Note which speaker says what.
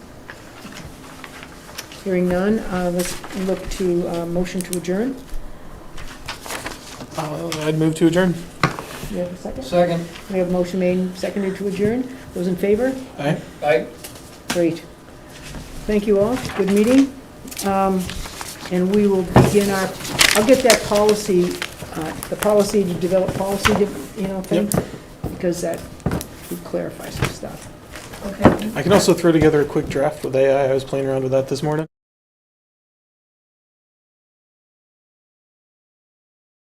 Speaker 1: Hearing none, uh, let's look to uh, motion to adjourn.
Speaker 2: Uh, I'd move to adjourn.
Speaker 1: We have a second?
Speaker 3: Second.
Speaker 1: We have a motion made, and seconded to adjourn. Those in favor?
Speaker 2: Aye.
Speaker 3: Aye.
Speaker 1: Great. Thank you all, good meeting. Um, And we will begin our, I'll get that policy, uh, the policy to develop policy, you know, thing, because that would clarify some stuff.
Speaker 4: Okay.
Speaker 2: I can also throw together a quick draft with AI. I was playing around with that this morning.